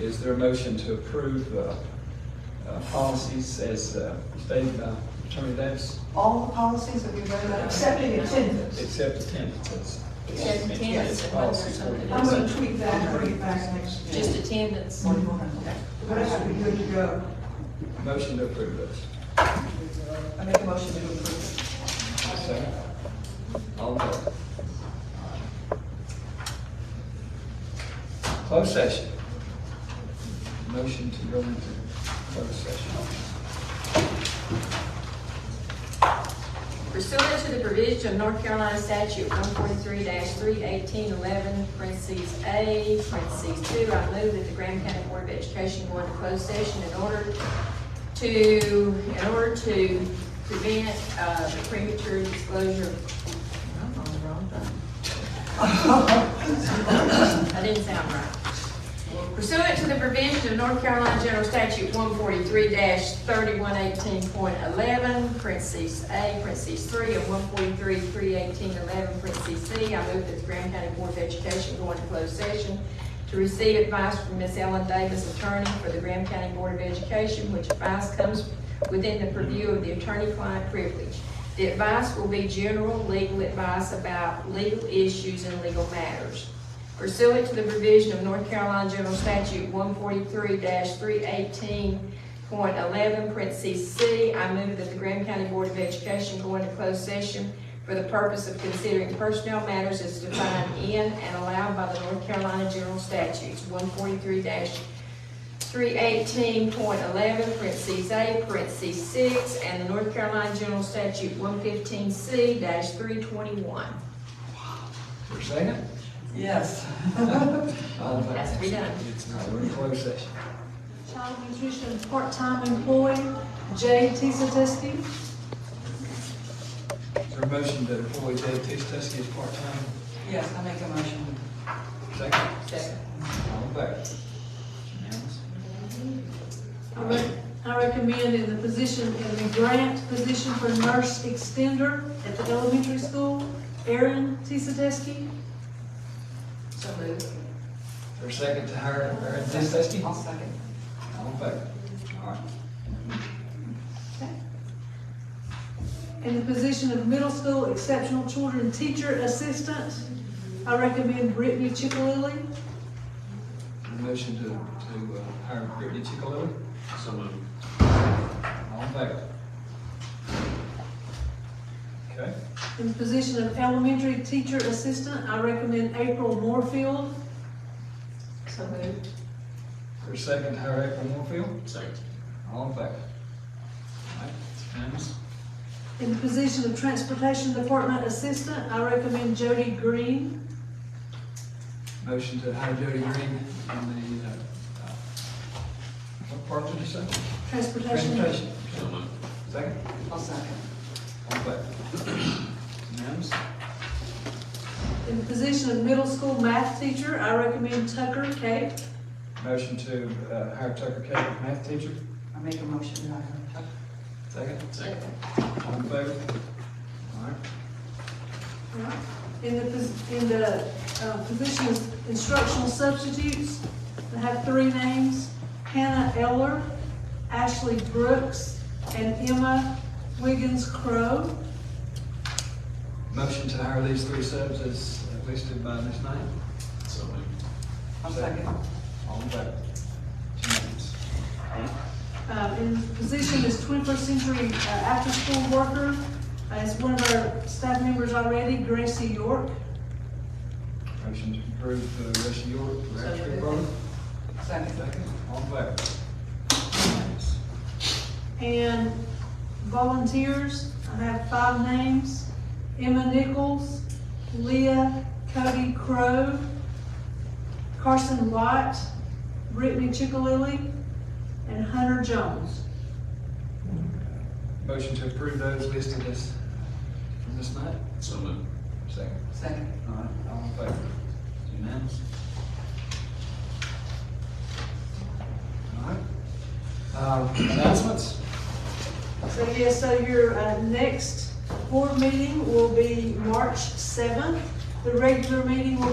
Is there a motion to approve uh, uh, policies as uh, stated by Attorney Davis, All the policies that we voted on, excepting attendance. except attendances? Except attendance and whether Policies. something I'm is- gonna tweak that and bring it back next week. Just attendance. Or you want to- okay. But I should be good to go. Motion to approve those. I make a motion to approve. Second. All in favor? Closed session. Motion to go into closed session. Pursuant to the provision of North Carolina statute one forty-three three eighteen eleven, parentheses A, parentheses two, I move that the Graham County Board of Education go into closed session in order to, in order to prevent, uh, the premature disclosure. of- I'm on the wrong button. That didn't sound right. Pursuant to the provision of North Carolina General Statute one forty-three thirty-one eighteen point eleven, parentheses A, parentheses three, and one forty-three, three eighteen eleven, parentheses C, I move that the Graham County Board of Education go into closed session to receive advice from Ms. Ellen Davis, attorney for the Graham County Board of Education, which advice comes within the purview of the attorney-client privilege. The advice will be general legal advice about legal issues and legal matters pursuant to the provision of North Carolina General Statute one forty-three three eighteen point eleven, parentheses C, I move that the Graham County Board of Education go into closed session for the purpose of considering personnel matters as defined in and allowed by the North Carolina General Statutes one forty-three three eighteen point eleven, parentheses A, parentheses six, and the North Carolina General Statute one fifteen C three twenty-one. For second? Yes. All in favor? Has to be done. All right, we're in closed session. Child nutrition part-time employee, Jay T. Zadisky. Is there a motion that employee Dave T. Stuskey is part-time? Yes, I make a motion. Second? Second. All in favor? Unanimous? I rec- I recommend in the position, in the grant position for nurse extender at the elementary school, Aaron T. Zadisky. So moved. Is there a second to hire Aaron T. Stuskey? I'll second. All in favor? All right. In the position of middle school exceptional children teacher assistant, I recommend Brittany Chickalilly. Is there a motion to, to uh, hire Brittany Chickalilly? So moved. All in favor? Okay. In the position of elementary teacher assistant, I recommend April Moorfield. So moved. For a second, hire April Moorfield, Second. all in favor? All right, unanimous. In the position of transportation department assistant, I recommend Jody Green. Motion to hire Jody Green on the, uh, uh, what part did you say? Transportation. Transportation. So moved. Second, I'll second. all in favor? Unanimous. In the position of middle school math teacher, I recommend Tucker Kate. Motion to uh, hire Tucker Kelly, math teacher, I make a motion that I have. second, Second. all in favor? All right, In the, pos- in the uh, position of instructional substitutes, I have three names, Hannah Eller, Ashley Brooks, and Emma Wiggins Crow. motion to hire these three subs as uh, listed by Ms. Knight, So moved. I'll second. all in favor? Unanimous. Uh, In the position as twenty-first century uh, after-school worker, as one of our staff members already, Gracie York. Motion to approve uh, Russia York, for So after moved. program, Second. second, all in favor? Unanimous. And volunteers, I have five names. Emma Nichols, Leah Cody Crowe, Carson White, Brittany Chickalilly, and Hunter Jones. Motion to approve those listed as uh, from this night? So moved. Second. Second. All right, all in favor? Unanimous? All right. Uh, announcements? So yes, so your uh, next board meeting will be March 7th. The regular meeting will